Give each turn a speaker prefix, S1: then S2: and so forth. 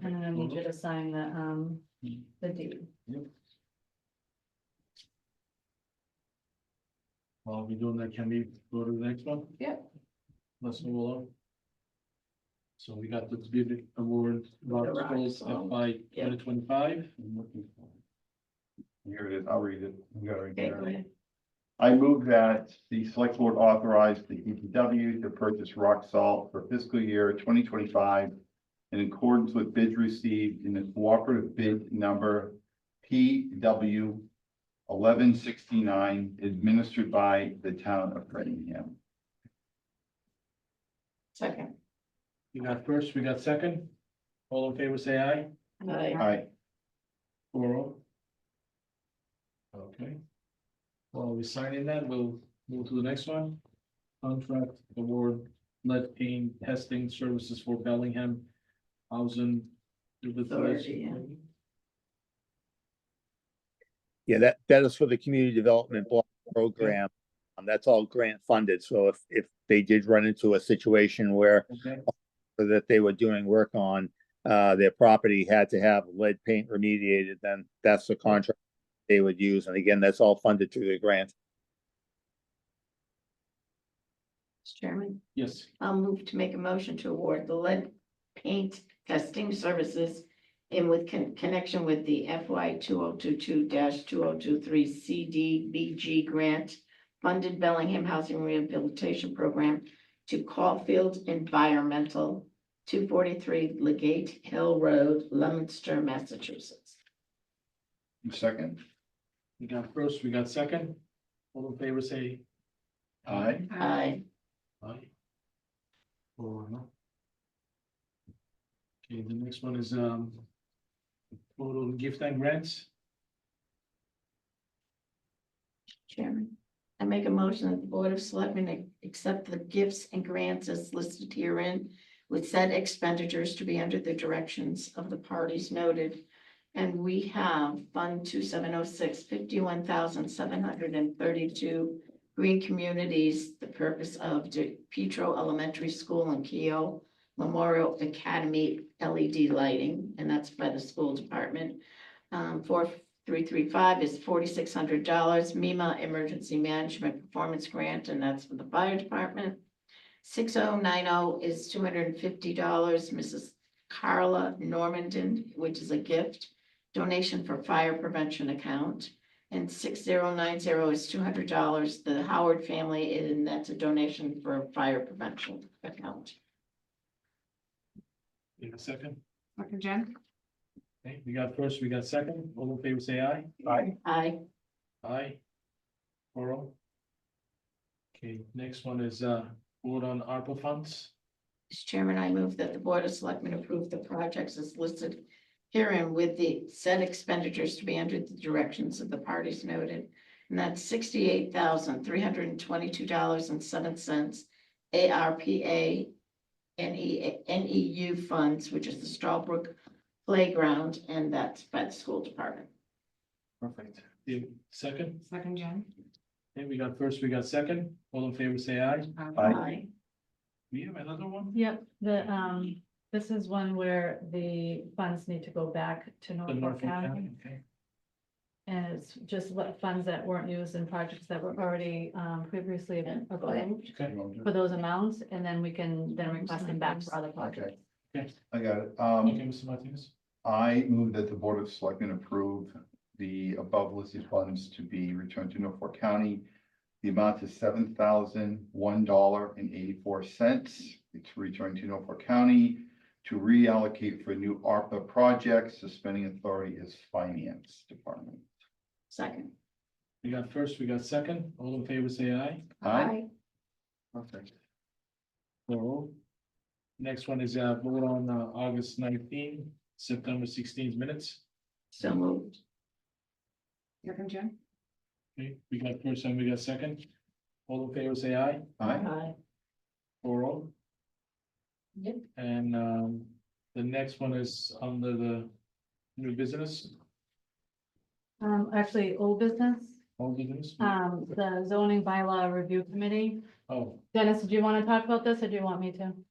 S1: need you to sign the, um, the deed.
S2: While we're doing that, can we go to the next one?
S1: Yep.
S2: Let's move along. So we got the big award, Rock
S1: The
S2: Schools
S1: Rock,
S2: FY
S1: yeah.
S2: twenty twenty-five.
S3: Here it is, I'll read it. We got it right
S1: Okay, go
S3: there.
S1: ahead.
S3: I move that the select board authorize the DPW to purchase rock salt for fiscal year twenty twenty-five in accordance with bids received in the cooperative bid number PW eleven sixty-nine administered by the town of Framingham.
S1: Second.
S2: We got first, we got second. All in favor, say aye.
S1: Aye.
S3: I,
S2: Four oh. Okay. While we sign in that, we'll move to the next one. Contract award, lead paint testing services for Bellingham housing.
S1: Authority, yeah.
S4: Yeah, that, that is for the community development block program. Um, that's all grant funded, so if, if they did run into a situation where
S2: Okay,
S4: that they were doing work on, uh, their property had to have lead paint remediated, then that's the contract they would use, and again, that's all funded through the grant.
S1: Mr. Chairman,
S2: yes,
S1: I'll move to make a motion to award the lead paint testing services in with con- connection with the FY two oh two two two oh two three CDBG grant funded Bellingham Housing Rehabilitation Program to Caulfield Environmental, two forty-three Legate Hill Road, Leominster, Massachusetts.
S3: second,
S2: we got first, we got second. All in favor, say
S3: I,
S1: Aye.
S2: aye. Four oh. Okay, the next one is, um, photo and gift and grants.
S1: Chairman, I make a motion that the Board of Selectmen accept the gifts and grants as listed herein with said expenditures to be under the directions of the parties noted. And we have Fund 2706, 51,732 Green Communities, the purpose of De- Petro Elementary School and Keough Memorial Academy LED lighting, and that's by the school department. Um, for three three five is forty-six hundred dollars, MEMA Emergency Management Performance Grant, and that's for the fire department. Six oh nine oh is two hundred and fifty dollars, Mrs. Carla Normandin, which is a gift, donation for fire prevention account. And six zero nine zero is two hundred dollars, the Howard family, and that's a donation for a fire prevention account.
S2: In a second.
S5: Second, Jen?
S2: Okay, we got first, we got second. All in favor, say aye.
S3: I,
S1: Aye.
S2: Aye. Oral. Okay, next one is uh, vote on ARPA funds.
S1: Mr. Chairman, I move that the Board of Selectmen approve the projects as listed herein with the said expenditures to be under the directions of the parties noted. And that's sixty-eight thousand, three hundred and twenty-two dollars and seven cents ARPA NE NEU E funds, which is the Strawbrook Playground, and that's by the school department.
S3: perfect,
S2: The second,
S5: Second, Jen?
S2: okay, we got first, we got second. All in favor, say aye.
S3: Aye.
S2: We have another one?
S6: Yep, the, um, this is one where the funds need to go back to
S2: The
S6: Norfolk
S2: Norfolk
S6: County.
S2: County, okay.
S6: And it's just what funds that weren't used in projects that were already, um, previously approved
S2: Okay,
S6: for those amounts, and then we can then request them back for other projects.
S3: I got it, um.
S2: okay, Mr. Martinez.
S3: I move that the Board of Selectmen approve the above listed funds to be returned to Norfolk County. The amount is seven thousand one dollar and eighty-four cents. It's returned to Norfolk County to reallocate for new ARPA projects. The spending authority is Finance Department.
S1: Second.
S2: We got first, we got second. All in favor, say aye.
S3: Aye. Perfect.
S2: Oral. oh. Next one is uh, vote on uh, August nineteenth, September sixteenth minutes.
S1: So moved.
S5: Second, Jen?
S2: Okay, we got first and we got second. All in favor, say aye.
S3: Aye.
S1: Aye.
S2: Oral.
S1: Yep.
S2: And um, the next one is under the new business,
S6: Um, actually, old business,
S2: old business.
S6: Uh, um, the zoning bylaw review committee.
S2: Oh,
S6: Dennis, do you want to talk about this or do you want me to?